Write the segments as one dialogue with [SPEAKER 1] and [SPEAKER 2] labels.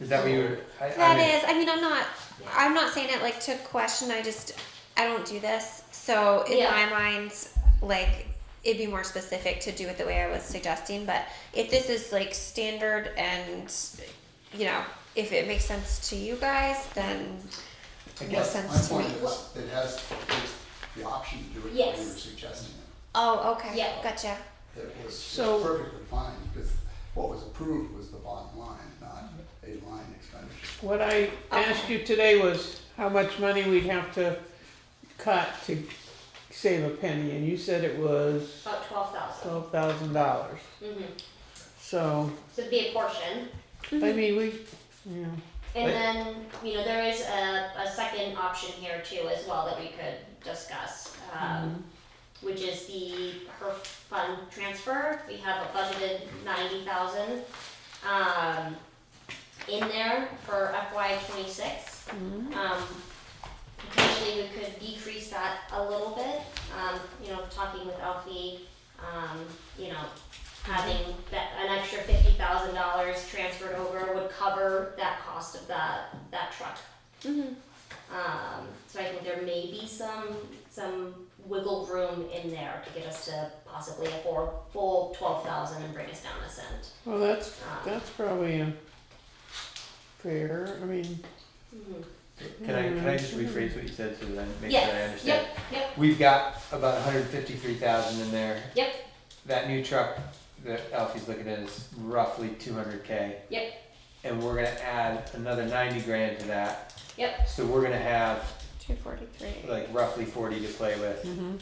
[SPEAKER 1] Is that what you were? I,
[SPEAKER 2] That
[SPEAKER 1] I mean,
[SPEAKER 2] is, I mean, I'm not, I'm not saying it like to question, I just, I don't do this. So in
[SPEAKER 3] Yeah.
[SPEAKER 2] my mind, like, it'd be more specific to do it the way I was suggesting, but if this is like standard and, you know, if it makes sense to you guys, then
[SPEAKER 1] I
[SPEAKER 2] more
[SPEAKER 1] guess.
[SPEAKER 4] My
[SPEAKER 2] sense to me.
[SPEAKER 4] point is, it has the- the option to do it the way
[SPEAKER 3] Yes.
[SPEAKER 4] you're suggesting it.
[SPEAKER 2] Oh, okay,
[SPEAKER 3] Yeah.
[SPEAKER 2] gotcha.
[SPEAKER 4] It was it's
[SPEAKER 5] So-
[SPEAKER 4] perfectly fine, because what was approved was the bottom line, not a line expenditure.
[SPEAKER 5] What I asked you today was how much money we'd have to cut to save a penny, and you said it was
[SPEAKER 3] About twelve thousand.
[SPEAKER 5] twelve thousand dollars.
[SPEAKER 3] Mm-hmm.
[SPEAKER 5] So,
[SPEAKER 3] So it'd be a portion.
[SPEAKER 5] I mean, we, yeah,
[SPEAKER 3] And
[SPEAKER 5] Right.
[SPEAKER 3] then, you know, there is a, a second option here too as well that we could discuss, um, which is the her fund transfer. We have a budgeted ninety thousand, um, in there for FY twenty-six. Um, potentially we could decrease that a little bit, um, you know, talking with Alfie, um, you know, having that, an extra fifty thousand dollars transferred over would cover that cost of that, that truck. Mm-hmm.
[SPEAKER 2] Mhm.
[SPEAKER 3] Um, so I think there may be some, some wiggle room in there to get us to possibly a full, full twelve thousand and bring us down a cent.
[SPEAKER 5] well, that's,
[SPEAKER 3] Um,
[SPEAKER 5] that's probably a fair, I mean,
[SPEAKER 3] mhm.
[SPEAKER 1] Can I can I just rephrase what you said so that I make sure I
[SPEAKER 3] Yes,
[SPEAKER 1] understand?
[SPEAKER 3] yep, yep,
[SPEAKER 1] We've got about 153,000 in there.
[SPEAKER 3] Yep.
[SPEAKER 1] That new truck that Alfie's looking at is roughly 200k.
[SPEAKER 3] Yep.
[SPEAKER 1] And we're gonna add another 90 grand to that.
[SPEAKER 3] Yep.
[SPEAKER 1] So we're gonna have
[SPEAKER 2] Two forty-three.
[SPEAKER 1] like roughly 40 to play with.
[SPEAKER 5] mhm.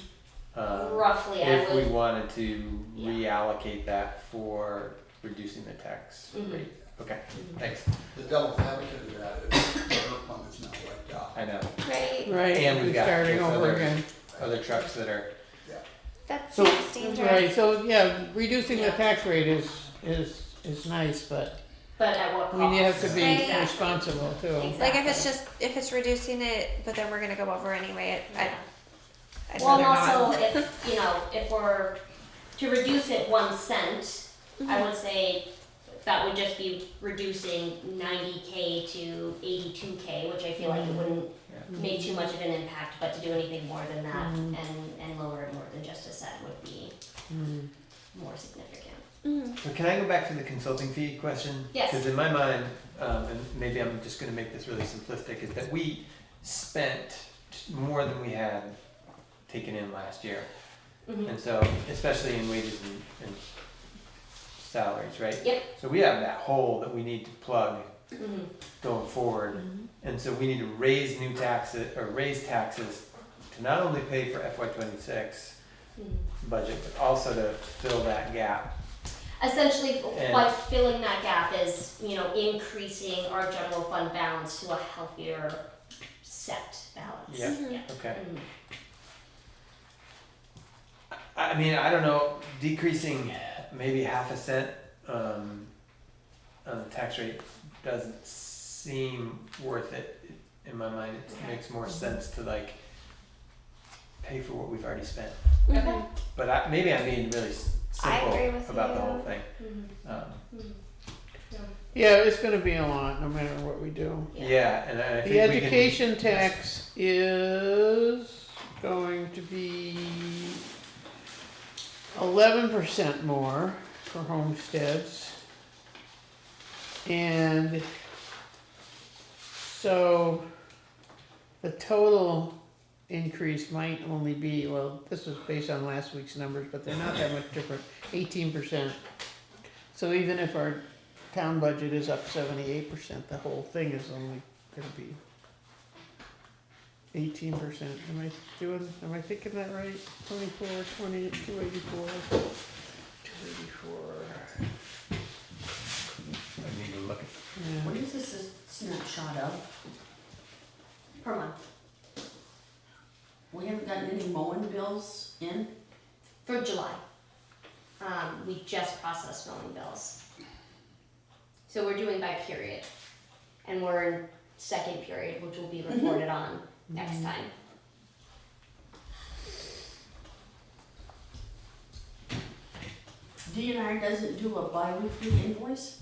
[SPEAKER 1] Um,
[SPEAKER 3] roughly, I
[SPEAKER 1] If we
[SPEAKER 3] would,
[SPEAKER 1] wanted to
[SPEAKER 3] Yeah.
[SPEAKER 1] reallocate that for reducing the tax
[SPEAKER 3] Mhm.
[SPEAKER 1] rate. Okay,
[SPEAKER 3] Mhm.
[SPEAKER 1] thanks.
[SPEAKER 4] The devil's advocate of that is the HERF fund is not wiped out.
[SPEAKER 1] I know.
[SPEAKER 2] Right,
[SPEAKER 5] right,
[SPEAKER 1] And we've
[SPEAKER 5] we're
[SPEAKER 1] got
[SPEAKER 5] starting
[SPEAKER 1] this
[SPEAKER 5] over
[SPEAKER 1] other-
[SPEAKER 5] again.
[SPEAKER 1] Other trucks that are
[SPEAKER 2] that
[SPEAKER 5] So-
[SPEAKER 2] seems dangerous.
[SPEAKER 5] Right, so, yeah, reducing the
[SPEAKER 3] Yeah.
[SPEAKER 5] tax rate is, is, is nice, but
[SPEAKER 3] but at what cost?
[SPEAKER 5] we have to be
[SPEAKER 2] Right.
[SPEAKER 5] responsible too.
[SPEAKER 2] Like if it's just, if it's reducing it, but then we're gonna go over anyway, I,
[SPEAKER 3] Yeah.
[SPEAKER 2] I'd
[SPEAKER 3] Well,
[SPEAKER 2] rather
[SPEAKER 3] and also
[SPEAKER 2] not.
[SPEAKER 3] if, you know, if we're, to reduce it one cent, I would say that would just be reducing ninety K to eighty-two K, which I feel like it wouldn't
[SPEAKER 1] Yeah.
[SPEAKER 3] make too much of an impact, but to do anything more than that and, and lower it more than just a cent would be
[SPEAKER 5] Mm.
[SPEAKER 3] more significant.
[SPEAKER 2] Mhm.
[SPEAKER 1] But can I go back to the consulting fee question?
[SPEAKER 3] Yes.
[SPEAKER 1] Because in my mind, um, and maybe I'm just gonna make this really simplistic, is that we spent more than we had taken in last year.
[SPEAKER 3] Mhm.
[SPEAKER 1] And so, especially in wages and, and salaries, right?
[SPEAKER 3] Yep.
[SPEAKER 1] So we have that hole that we need to plug
[SPEAKER 3] Mhm.
[SPEAKER 1] going forward.
[SPEAKER 3] Mm-hmm.
[SPEAKER 1] And so we need to raise new taxes, or raise taxes to not only pay for FY twenty-six
[SPEAKER 3] Mhm.
[SPEAKER 1] budget, but also to fill that gap.
[SPEAKER 3] Essentially,
[SPEAKER 1] And-
[SPEAKER 3] what filling that gap is, you know, increasing our general fund balance to a healthier set balance.
[SPEAKER 1] Yeah.
[SPEAKER 3] Yeah.
[SPEAKER 1] Okay.
[SPEAKER 3] Mhm.
[SPEAKER 1] I I mean, I don't know, decreasing maybe half a cent um, on the tax rate doesn't seem worth it in my mind. It
[SPEAKER 3] Okay.
[SPEAKER 1] makes more sense to like pay for what we've already spent.
[SPEAKER 3] Okay.
[SPEAKER 1] But I, maybe I'm being really s-
[SPEAKER 2] I
[SPEAKER 1] simple
[SPEAKER 2] agree with
[SPEAKER 1] about the
[SPEAKER 2] you.
[SPEAKER 1] whole thing.
[SPEAKER 3] Mhm.
[SPEAKER 1] Um,
[SPEAKER 3] Mhm.
[SPEAKER 5] Yeah, it's gonna be a lot, no matter what we do.
[SPEAKER 1] yeah. and I think
[SPEAKER 5] The
[SPEAKER 1] we can-
[SPEAKER 5] education tax is going to be eleven percent more for homesteads. And so the total increase might only be, well, this was based on last week's numbers, but they're not that much different, eighteen percent. So even if our town budget is up seventy-eight percent, the whole thing is only gonna be eighteen percent, am I doing, am I thinking that right? Twenty-four, twenty, two eighty-four, two eighty-four,
[SPEAKER 1] I need to look at
[SPEAKER 5] yeah.
[SPEAKER 6] What is this a snapshot of?
[SPEAKER 3] Per month.
[SPEAKER 6] We haven't gotten any mowing bills in?
[SPEAKER 3] For July. Um, we just processed mowing bills. So we're doing by period. And we're in second period, which will be reported on next time.
[SPEAKER 6] DNR doesn't do a bi-weekly invoice?